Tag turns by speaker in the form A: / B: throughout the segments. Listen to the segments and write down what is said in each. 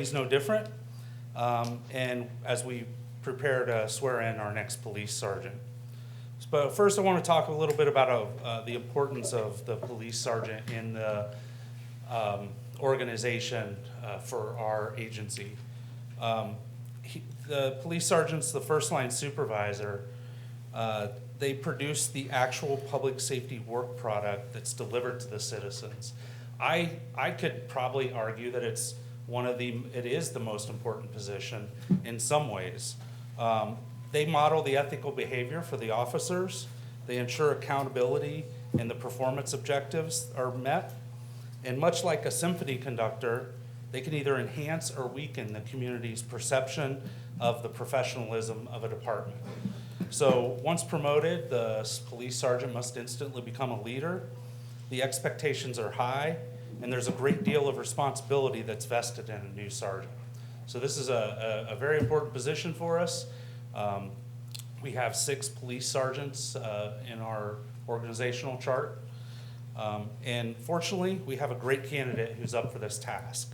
A: He's no different. Um, And as we prepare to swear in our next police sergeant. But first, I want to talk a little bit about uh, the importance of the police sergeant in the um, organization uh, for our agency. Um, he- The police sergeant's the first-line supervisor. Uh, They produce the actual public safety work product that's delivered to the citizens. I, I could probably argue that it's one of the, it is the most important position in some ways. Um, They model the ethical behavior for the officers. They ensure accountability and the performance objectives are met. And much like a symphony conductor, they can either enhance or weaken the community's perception of the professionalism of a department. So, once promoted, the s- police sergeant must instantly become a leader. The expectations are high, and there's a great deal of responsibility that's vested in a new sergeant. So, this is a, a, a very important position for us. Um, we have six police sergeants uh, in our organizational chart. Um, And fortunately, we have a great candidate who's up for this task.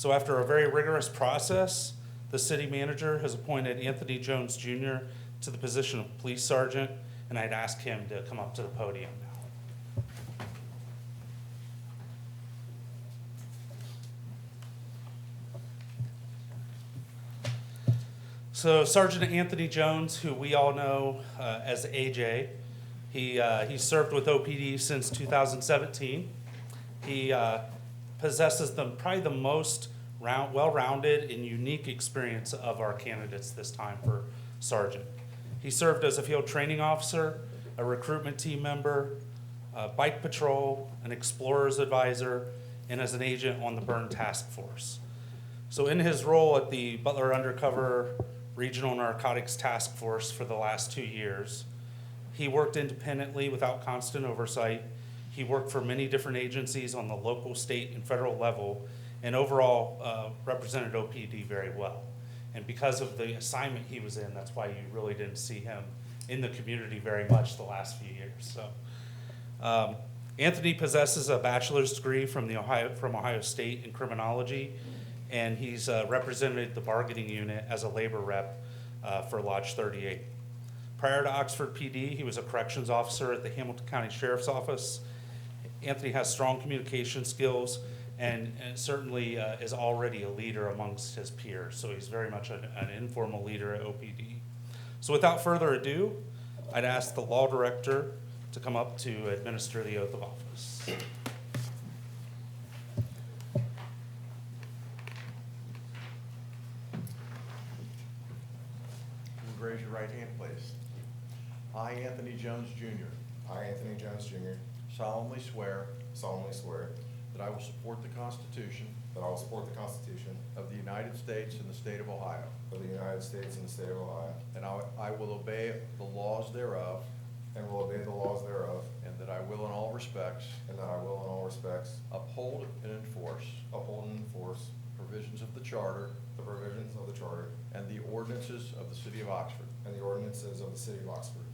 A: So after a very rigorous process, the city manager has appointed Anthony Jones Jr. to the position of police sergeant, and I'd ask him to come up to the podium now. So Sergeant Anthony Jones, who we all know uh, as AJ, he, uh, he served with OPD since 2017. He uh, possesses the, probably the most round, well-rounded and unique experience of our candidates this time for sergeant. He served as a field training officer, a recruitment team member, a bike patrol, an explorer's advisor, and as an agent on the burn task force. So in his role at the Butler Undercover Regional Narcotics Task Force for the last two years, he worked independently without constant oversight. He worked for many different agencies on the local, state, and federal level, and overall uh, represented OPD very well. And because of the assignment he was in, that's why you really didn't see him in the community very much the last few years. So um, Anthony possesses a bachelor's degree from the Ohio, from Ohio State in criminology, and he's uh, represented the bargaining unit as a labor rep uh, for Lodge 38. Prior to Oxford PD, he was a corrections officer at the Hamilton County Sheriff's Office. Anthony has strong communication skills and and certainly uh, is already a leader amongst his peers, so he's very much an an informal leader at OPD. So without further ado, I'd ask the law director to come up to administer the oath of office.
B: And Raise your right hand, please. I, Anthony Jones Jr.,
C: I, Anthony Jones Jr.,
B: solemnly swear
C: solemnly swear
B: that I will support the Constitution
C: that I will support the Constitution
B: of the United States and the state of Ohio,
C: of the United States and the state of Ohio,
B: and I I will obey the laws thereof,
C: and will obey the laws thereof,
B: and that I will in all respects
C: and that I will in all respects
B: uphold and enforce
C: uphold and enforce
B: provisions of the Charter
C: the provisions of the Charter
B: and the ordinances of the city of Oxford,
C: and the ordinances of the city of Oxford,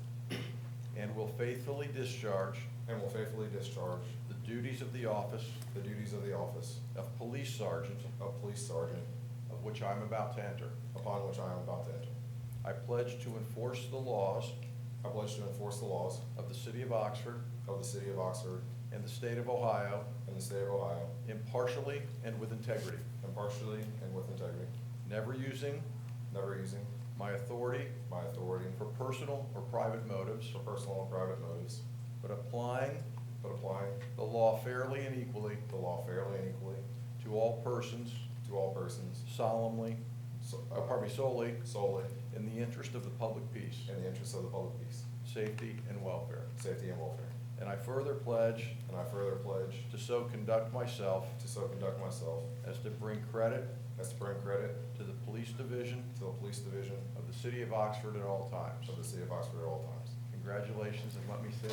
B: and will faithfully discharge
C: and will faithfully discharge
B: the duties of the office
C: the duties of the office
B: of police sergeant,
C: of police sergeant
B: of which I am about to enter.
C: upon which I am about to enter.
B: I pledge to enforce the laws
C: I pledge to enforce the laws
B: of the city of Oxford
C: of the city of Oxford
B: and the state of Ohio
C: and the state of Ohio
B: impartially and with integrity,
C: impartially and with integrity,
B: never using
C: never using
B: my authority
C: my authority
B: for personal or private motives,
C: for personal and private motives,
B: but applying
C: but applying
B: the law fairly and equally
C: the law fairly and equally
B: to all persons
C: to all persons
B: solemnly,
C: so- uh,
B: or pardon me, solely,
C: solely
B: in the interest of the public peace,
C: in the interests of the public peace,
B: safety, and welfare.
C: safety, and welfare.
B: And I further pledge
C: And I further pledge
B: to so conduct myself
C: to so conduct myself
B: as to bring credit
C: as to bring credit
B: to the police division
C: to the police division
B: of the city of Oxford at all times.
C: of the city of Oxford at all times.
B: Congratulations, and let me say.